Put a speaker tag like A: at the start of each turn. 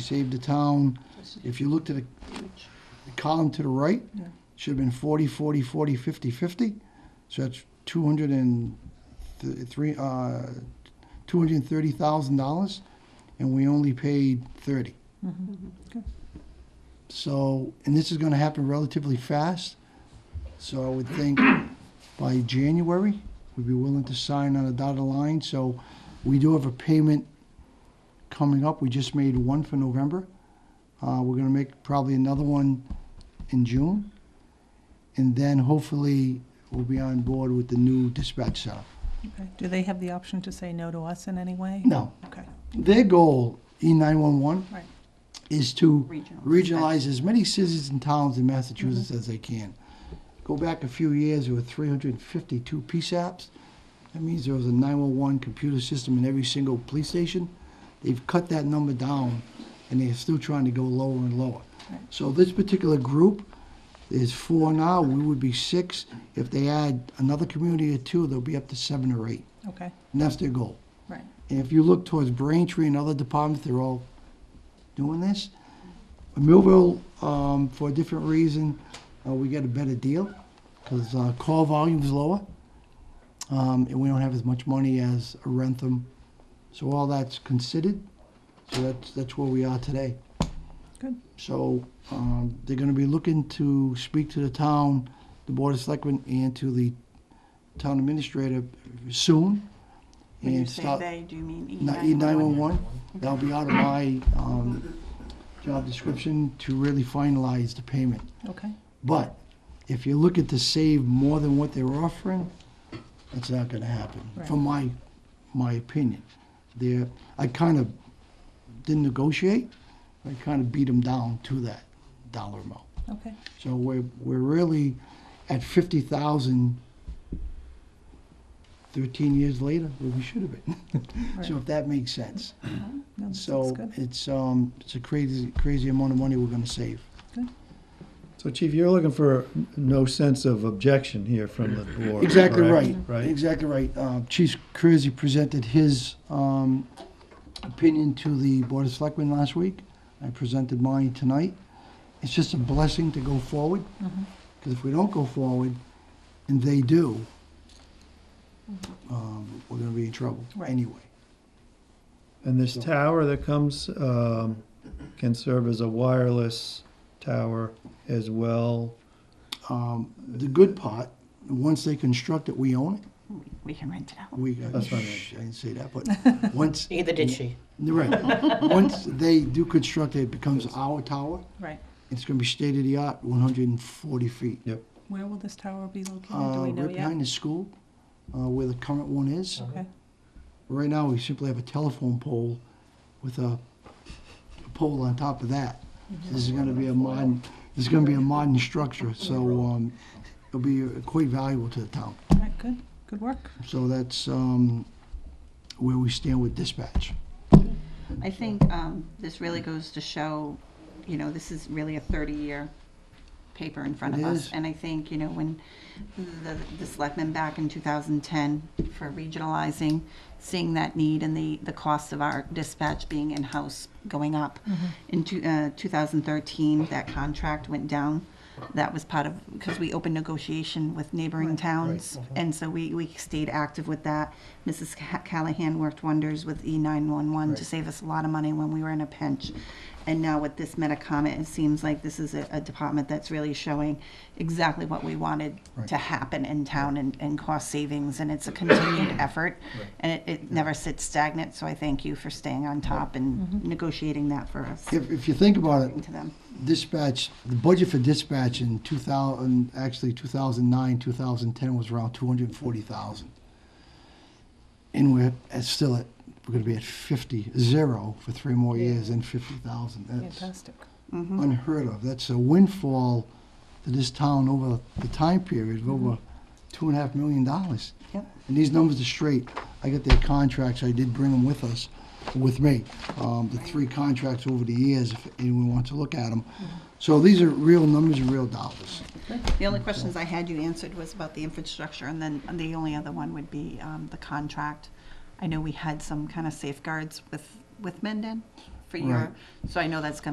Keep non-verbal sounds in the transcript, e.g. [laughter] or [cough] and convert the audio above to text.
A: saved the town, if you look to the the column to the right, should have been 40, 40, 40, 50, 50. So that's 200 and th- three, uh, $230,000, and we only paid 30. So, and this is going to happen relatively fast, so I would think by January, we'd be willing to sign on a dotted line, so we do have a payment coming up. We just made one for November. Uh, we're gonna make probably another one in June. And then hopefully we'll be on board with the new dispatch center.
B: Okay. Do they have the option to say no to us in any way?
A: No,
B: Okay,
A: their goal, E nine one one,
B: Right.
A: is to
C: Regional.
A: regionalize as many cities and towns in
B: Mm-hmm.
A: Massachusetts as they can. Go back a few years, there were three hundred and fifty-two PSAPs. That means there was a nine one one computer system in every single police station. They've cut that number down, and they're still trying to go lower and lower.
B: Right.
A: So this particular group, there's four now, we would be six. If they add another community or two, they'll be up to seven or eight,
B: okay,
A: and that's their goal.
B: right.
A: And if you look towards Braintree and other departments, they're all doing this. Millville, um, for a different reason, uh, we get a better deal because uh, call volume's lower, um, and we don't have as much money as a Rentham. So all that's considered. So that's that's where we are today.
B: Good.
A: So um, they're going to be looking to speak to the town, the board of selectmen, and to the town administrator soon.
C: When you
A: and
C: say
A: start-
C: they, do you mean E
A: not
C: nine?
A: E nine one one, that'll be out of my, um, job description to really finalize the payment.
B: Okay,
A: But if you're looking to save more than what they're offering, that's not gonna happen, from my, my opinion. There, I kind of didn't negotiate, I kind of beat them down to that dollar amount.
B: okay,
A: So we're, we're really at fifty thousand thirteen years later, where we should have been. [laughs] So if that makes sense.
B: no, this looks
A: So
B: good.
A: it's, um, it's a crazy, crazy amount of money we're gonna save.
D: So Chief, you're looking for no sense of objection here from the board.
A: Exactly right.
D: correct? Right?
A: Exactly right. Uh, Chief Curzy presented his, um, opinion to the Board of Selectmen last week. I presented mine tonight. It's just a blessing to go forward.
B: Mm-hmm.
A: Because if we don't go forward, and they do, um, we're gonna be in trouble
B: Mm-hmm. Right.
A: anyway.
D: And this tower that comes um, can serve as a wireless tower as well.
A: Um, the good part, once they construct it, we own it.
C: We can rent it out.
A: We, I
D: That's what I meant.
A: shh, I didn't say that,
B: [laughs]
A: but once,
E: Neither did she.
A: right, once they do construct it, it becomes our tower.
B: Right.
A: It's gonna be state of the art, one hundred and forty feet.
D: Yep.
B: Where will this tower be located? Do
A: Uh,
B: we know
A: right
B: yet?
A: behind the school, uh, where the current one is.
B: Okay,
A: Right now, we simply have a telephone pole with a a pole on top of that.
B: Mm-hmm.
A: This is gonna be a modern, this is gonna be a modern structure, so, um, it'll be uh, quite valuable to the town.
B: all right, good, good work.
A: So that's um, where we stand with dispatch.
C: I think um, this really goes to show, you know, this is really a 30-year paper in front
A: It
C: of
A: is.
C: us. And I think, you know, when the, the selectmen back in 2010 for regionalizing, seeing that need and the, the cost of our dispatch being in-house going up. In two- uh, 2013, that contract went down. That was part of, because we opened negotiation with neighboring towns. And so we, we stayed active with that. Mrs. Ca- Callahan worked wonders with E E911 to save us a lot of money when we were in a pinch. And now with this Metacomet, it seems like this is a, a department that's really showing exactly what we wanted to happen in town and, and cost savings. And it's a continued effort and it, it never sits stagnant. So I thank you for staying on top and negotiating that for us.
A: If, if you think about it,
C: To them.
A: dispatch, the budget for dispatch in 2000, actually 2009, 2010 was around 240,000. And we're at, still at, we're gonna be at 50, zero for three more years and 50,000. That's
B: Fantastic.
A: unheard of. That's a windfall to this town over the time period of over two and a half million dollars.
C: Yep.
A: And these numbers are straight. I got their contracts, I did bring them with us, with me, um, the three contracts over the years, if anyone wants to look at them. So these are real numbers and real dollars.
C: The only questions I had you answered was about the infrastructure, and then the only other one would be um, the contract. I know we had some kind of safeguards with, with Mendon for your,
A: Right.
C: so I know that's gonna